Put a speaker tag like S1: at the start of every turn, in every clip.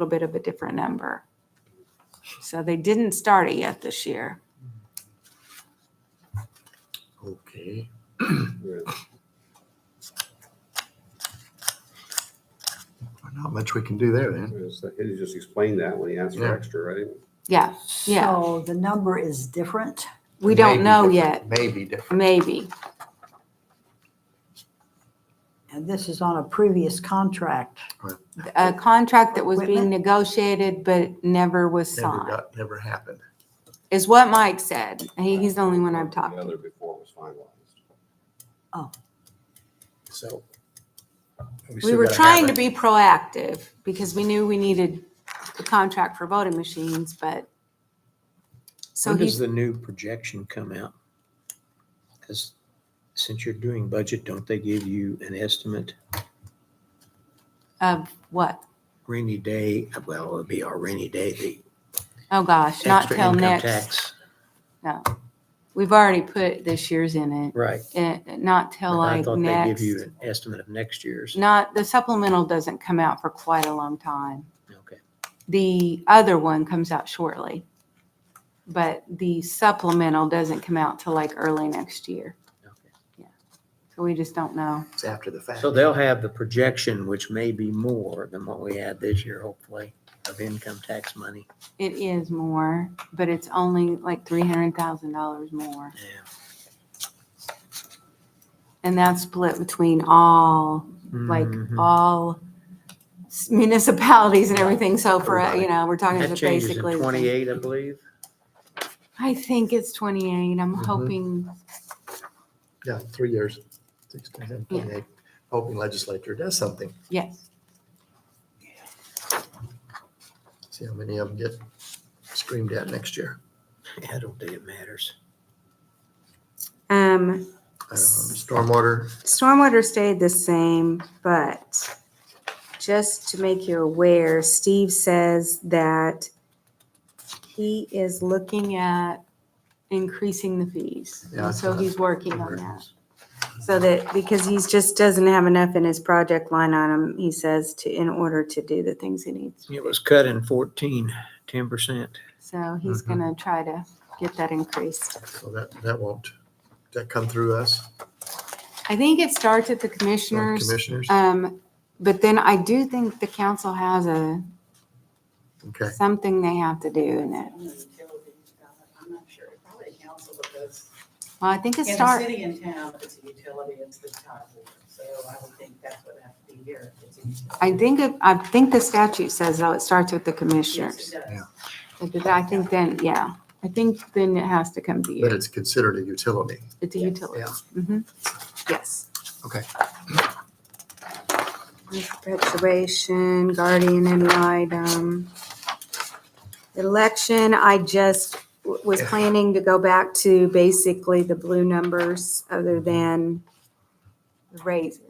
S1: little bit of a different number. So they didn't start it yet this year.
S2: Okay. Not much we can do there then.
S3: He just explained that when he asked for
S2: Yeah.
S3: extra, right?
S1: Yeah, yeah.
S4: So the number is different.
S1: we don't
S2: Maybe
S1: know yet,
S2: different, Maybe different.
S1: maybe.
S4: And this is on a previous contract.
S1: A contract that was being
S4: Equipment?
S1: negotiated but never was
S2: Never
S1: signed,
S2: got, never happened.
S1: is what Mike said. He- He's the only one I've talked
S3: The
S1: to.
S3: other before was finalized.
S2: So.
S1: We
S2: still
S1: were
S2: gotta
S1: trying to
S2: have it.
S1: be proactive because we knew we needed a contract for voting machines, but. So
S5: When does
S1: he's,
S5: the new projection come out? Because since you're doing budget, don't they give you an estimate
S1: of what?
S5: rainy day? Well, it'll be our rainy day, the
S1: Oh, gosh, not
S5: extra
S1: till
S5: income
S1: next.
S5: tax.
S1: We've already put this year's in it.
S5: Right.
S1: eh, not till
S5: But I
S1: like
S5: thought they give
S1: next.
S5: you an estimate of next year's.
S1: Not, the supplemental doesn't come out for quite a long time.
S5: Okay.
S1: The other one comes out shortly. But the supplemental doesn't come out till like early next year.
S5: okay.
S1: So we just don't know.
S2: It's after the fact.
S5: So they'll have the projection, which may be more than what we had this year, hopefully, of income tax money.
S1: It is more, but it's only like three hundred thousand dollars more.
S5: Yeah.
S1: And that's split between all, like,
S5: Mhm.
S1: all s- municipalities and everything. So for, a- you
S5: Everybody.
S1: know, we're talking
S5: That
S1: just
S5: changes in
S1: basically. the same.
S5: twenty-eight, I believe.
S1: I think it's twenty-eight. I'm
S5: Mm-hmm.
S2: Mhm.
S1: hoping,
S2: Yeah, three years. 16, 17, 28. Hoping legislature does something.
S1: yes.
S2: See how many of them get screamed at next year.
S5: I don't think it matters.
S1: Um,
S2: Um, Stormwater,
S1: Stormwater stayed the same, but just to make you aware, Steve says that he is looking at increasing the fees.
S2: Yeah,
S1: And so
S2: that's-
S1: he's working on that. So that, because he's just doesn't have enough in his project line item, he says, to, in order to do the things he needs.
S5: It was cut in fourteen, ten percent.
S1: So he's
S2: Mhm.
S1: gonna try to get that increased.
S2: so that, that won't, that come through us, uh,
S1: I think it starts at the
S2: our
S1: commissioners.
S2: commissioners?
S1: Um, but then I do think the council has a
S2: Okay,
S1: something they have to do in it.
S6: I'm not sure, probably council, because
S1: Well, I think it
S6: in the
S1: starts,
S6: city and town, if it's a utility, it's the top board. So I would think that's what has to be here. if it's a utility.
S1: I think, it- I think the statute says, though, it starts with the
S6: Yes,
S1: commissioners.
S6: it does.
S1: But then I think then, yeah, I think then it has to come to
S2: but
S1: you.
S2: it's considered a utility.
S1: It's a
S6: Yes.
S1: utility.
S2: Yeah.
S1: Mhm. Yes.
S2: Okay.
S1: Perpetuation, guardian ad litem. Election, I just w- was planning to go back to basically the blue numbers other than the raises.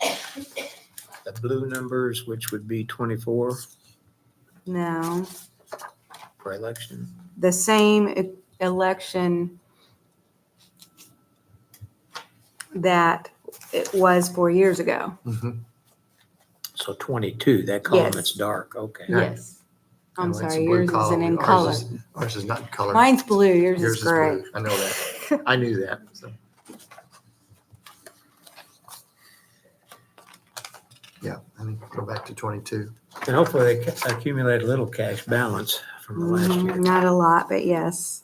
S5: The blue numbers, which would be twenty-four
S1: No.
S5: for election.
S1: the same e- election that it was four years ago.
S2: Mhm.
S5: So twenty-two, that column
S1: Yes.
S5: that's dark, okay.
S2: Yeah.
S1: Yes. I'm
S2: No, it's
S1: sorry,
S2: blue
S1: yours isn't
S2: column.
S1: in
S2: Ours
S1: color.
S2: is- Ours is not in color.
S1: Mine's blue, yours
S2: Yours
S1: is
S2: is blue.
S1: gray.
S2: I know that. I knew that, so. Yeah, I mean, go back to twenty-two.
S5: And hopefully they ca- accumulate a little cash balance from the last
S1: Mhm,
S5: year.
S1: Not a lot, but yes.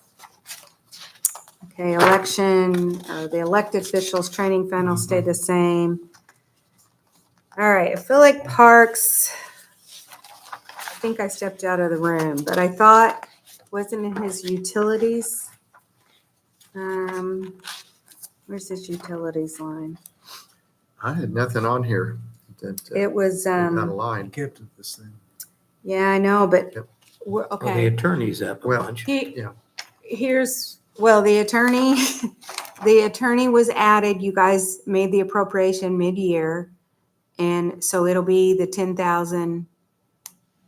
S1: Okay, election, uh, the elected officials training fund
S5: Mm-hmm.
S1: will stay the same. All right, I feel like parks. I think I stepped out of the room, but I thought, wasn't in his utilities? Um, where's his utilities line?
S2: I had nothing on here that, uh,
S1: It was,
S2: not
S1: um,
S2: aligned.
S1: yeah, I know, but,
S2: Yep.
S1: we're-
S5: Well, Oh, the
S1: okay.
S5: attorney's up a
S2: Well-
S5: bunch.
S1: He-
S2: Yeah.
S1: Here's, well, the attorney, the attorney was added, you guys made the appropriation mid-year. And so it'll be the ten thousand,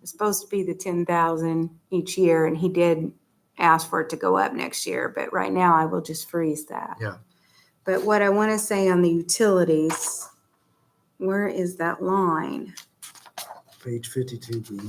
S1: it's supposed to be the ten thousand each year, and he did ask for it to go up next year, but right now I will just freeze that.
S2: Yeah.
S1: But what I want to say on the utilities, where is that line?
S2: page fifty-two B.